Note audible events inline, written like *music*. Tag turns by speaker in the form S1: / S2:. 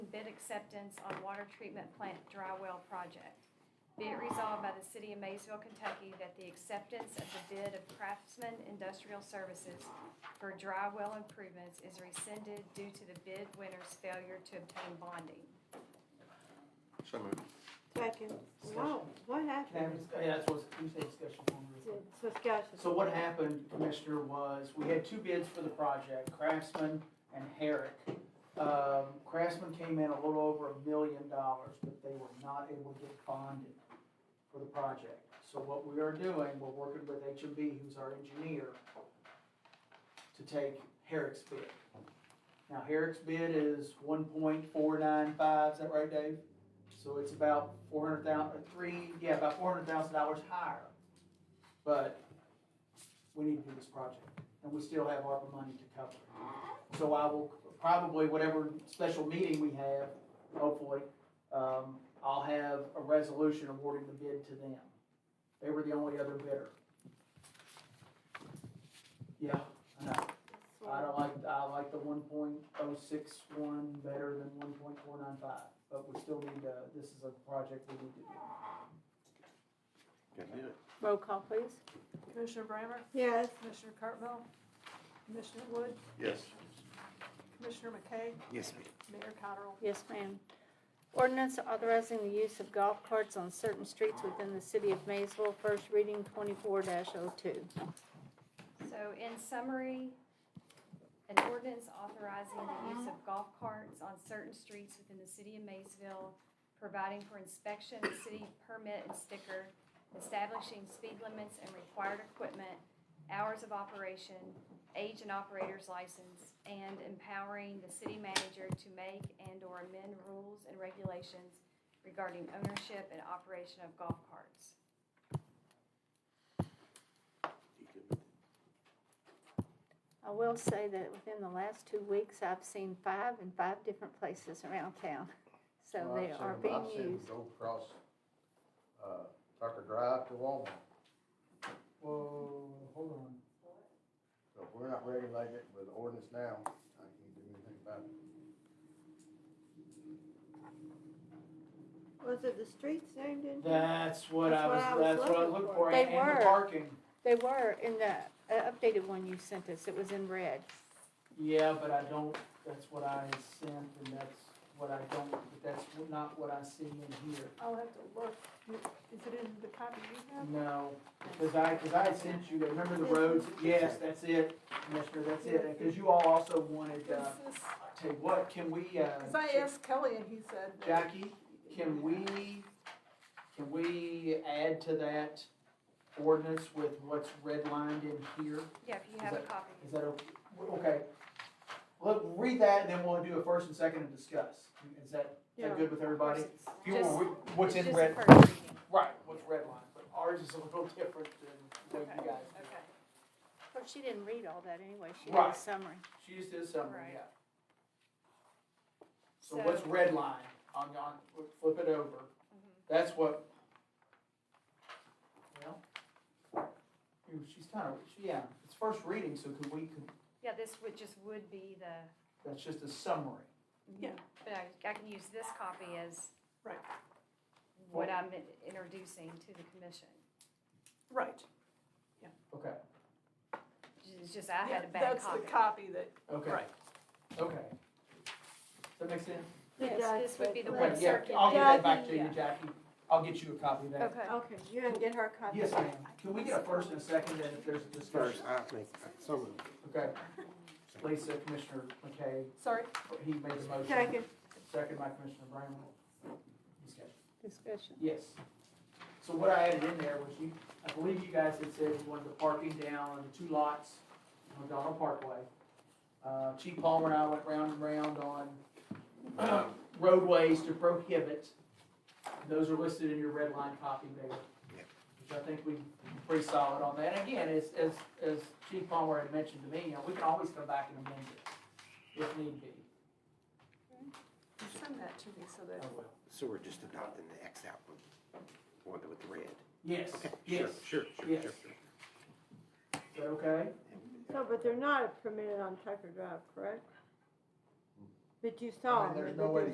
S1: bid acceptance on water treatment plant dry well project. Be it resolved by the City of Maysville, Kentucky, that the acceptance of the bid of Craftsman Industrial Services for dry well improvements is rescinded due to the bid winner's failure to obtain bonding.
S2: So moved.
S3: Second. No, what
S4: Have
S3: happened?
S4: dis- Yeah, that's what, you said discussion form.
S3: It's Discussion.
S4: So what happened, Commissioner, was we had two bids for the project, Craftsman and Herrick. Um, Craftsman came in a little over a million dollars, but they were not able to get bonded for the project. So what we are doing, we're working with HMB, who's our engineer, to take Herrick's bid. Now Herrick's bid is one point four nine five, is that right, Dave? So it's about four hundred thousand, three, yeah, about four hundred thousand dollars higher. But we need to do this project, and we still have ARPA money to cover it. So I will, probably whatever special meeting we have, hopefully, um, I'll have a resolution awarding the bid to them. They were the only other bidder. Yeah, I know. I don't like, I like the one point oh six one better than one point four nine five, but we still need to, this is a project we need to do.
S2: Gotta do it.
S3: Roll call, please.
S5: Commissioner Brammer?
S3: Yes.
S5: Commissioner Cartwell? Commissioner Wood?
S2: Yes.
S5: Commissioner McKay?
S2: Yes, ma'am.
S5: Mayor Cottrell?
S3: Yes, ma'am. Ordinance authorizing the use of golf carts on certain streets within the city of Maysville, first reading twenty-four oh 2
S1: So in summary, an ordinance authorizing the use of golf carts on certain streets within the city of Maysville, providing for inspection, city permit and sticker, establishing speed limits and required equipment, hours of operation, age and operator's license, and empowering the city manager to make and/or amend rules and regulations regarding ownership and operation of golf carts.
S2: You good with it?
S3: I will say that within the last two weeks, I've seen five in five different places around town. *laughs* So
S6: Well,
S3: they
S6: I've
S3: are
S6: seen
S3: being
S6: 'em-
S3: used.
S6: I've seen 'em go across, uh, Tucker Drive to Walmart,
S4: Whoa, hold on.
S6: so if we're not regulating it with ordinance now, I can't do anything about it.
S7: Was it the streets named in?
S4: That's what I was,
S7: That's what I was
S4: that's what I
S7: looking
S4: looked
S7: for.
S4: for,
S3: They
S4: and and the
S3: were.
S4: parking.
S3: They were in the uh, updated one you sent us. It was in red.
S4: Yeah, but I don't, that's what I sent, and that's what I don't, but that's not what I see in here.
S5: I'll have to look. Is it in the copy you have?
S4: No, because I, because I had sent you, remember the roads? Yes, that's it, Mister, that's it, because you all also wanted, uh,
S5: Because
S4: tell you what, can we,
S5: I
S4: uh,
S5: asked Kelly and he said. that-
S4: Jackie, can we, can we add to that ordinance with what's redlined in here?
S1: Yeah, if you have a
S4: Is
S1: copy.
S4: Is that, okay? okay? Look, read that, and then we'll do a first and second and discuss. Is that, is that good with everybody? If you want, we- what's
S1: It's
S4: in
S1: just
S4: red,
S1: the first reading.
S4: right, what's red line, but ours is a little *laughs* different than what
S1: Okay,
S4: you guys
S1: okay.
S4: do.
S3: Of course, she didn't read all that anyway. She did a
S4: Right.
S3: summary.
S4: She just did a summary,
S1: Right.
S4: yeah. So what's red line, on, on, flip it over,
S1: Mhm.
S4: that's what. Well, ooh, she's kind of, yeah, it's first reading, so could we, could,
S1: Yeah, this would, just would be the,
S4: that's just a summary.
S5: Yeah.
S1: but I, I can use this copy as.
S5: Right.
S1: What I'm introducing to the commission.
S5: Right.
S4: Okay,
S1: It's just I had a
S5: Yeah,
S1: bad
S5: That's
S1: copy.
S5: the copy that,
S4: okay.
S5: right.
S4: Okay. Does that make sense?
S3: Yes,
S1: This would be the one
S4: Okay, yeah,
S1: circuit.
S4: I'll get that back to you,
S1: Yeah.
S4: Jackie. I'll get you a copy of that.
S5: Um,
S1: Okay.
S7: Okay, you didn't get her a copy.
S4: Yes, ma'am. Can we get a first and a second, and if there's a
S2: First,
S4: discussion?
S2: I think, so moved.
S4: Okay. Lisa, Commissioner McKay,
S5: Sorry,
S4: he made the motion.
S7: Second.
S4: Second by Commissioner Brown. Discussion.
S3: Discussion.
S4: Yes. So what I added in there was you, I believe you guys had said you wanted the parking down on the two lots on Donald Parkway. Uh, Chief Palmer and I went round and round on *clears throat* roadways to prohibit. Those are listed in your red line copy there.
S2: Yep.
S4: Which I think we pretty solid on that. And again, as, as, as Chief Palmer had mentioned to me, you know, we can always come back and amend it if need be.
S5: You send that to me so that,
S4: Oh, well.
S2: So we're just adopting the X out one, one with the red.
S4: Yes,
S2: Okay, sure,
S4: yes.
S2: sure, sure,
S4: yes.
S2: sure.
S4: Is that okay?
S7: No, but they're not permitted on Tucker Drive, correct? But you
S6: I
S7: saw
S6: mean,
S7: them.
S6: there's
S7: but
S6: no way
S7: they're-
S6: to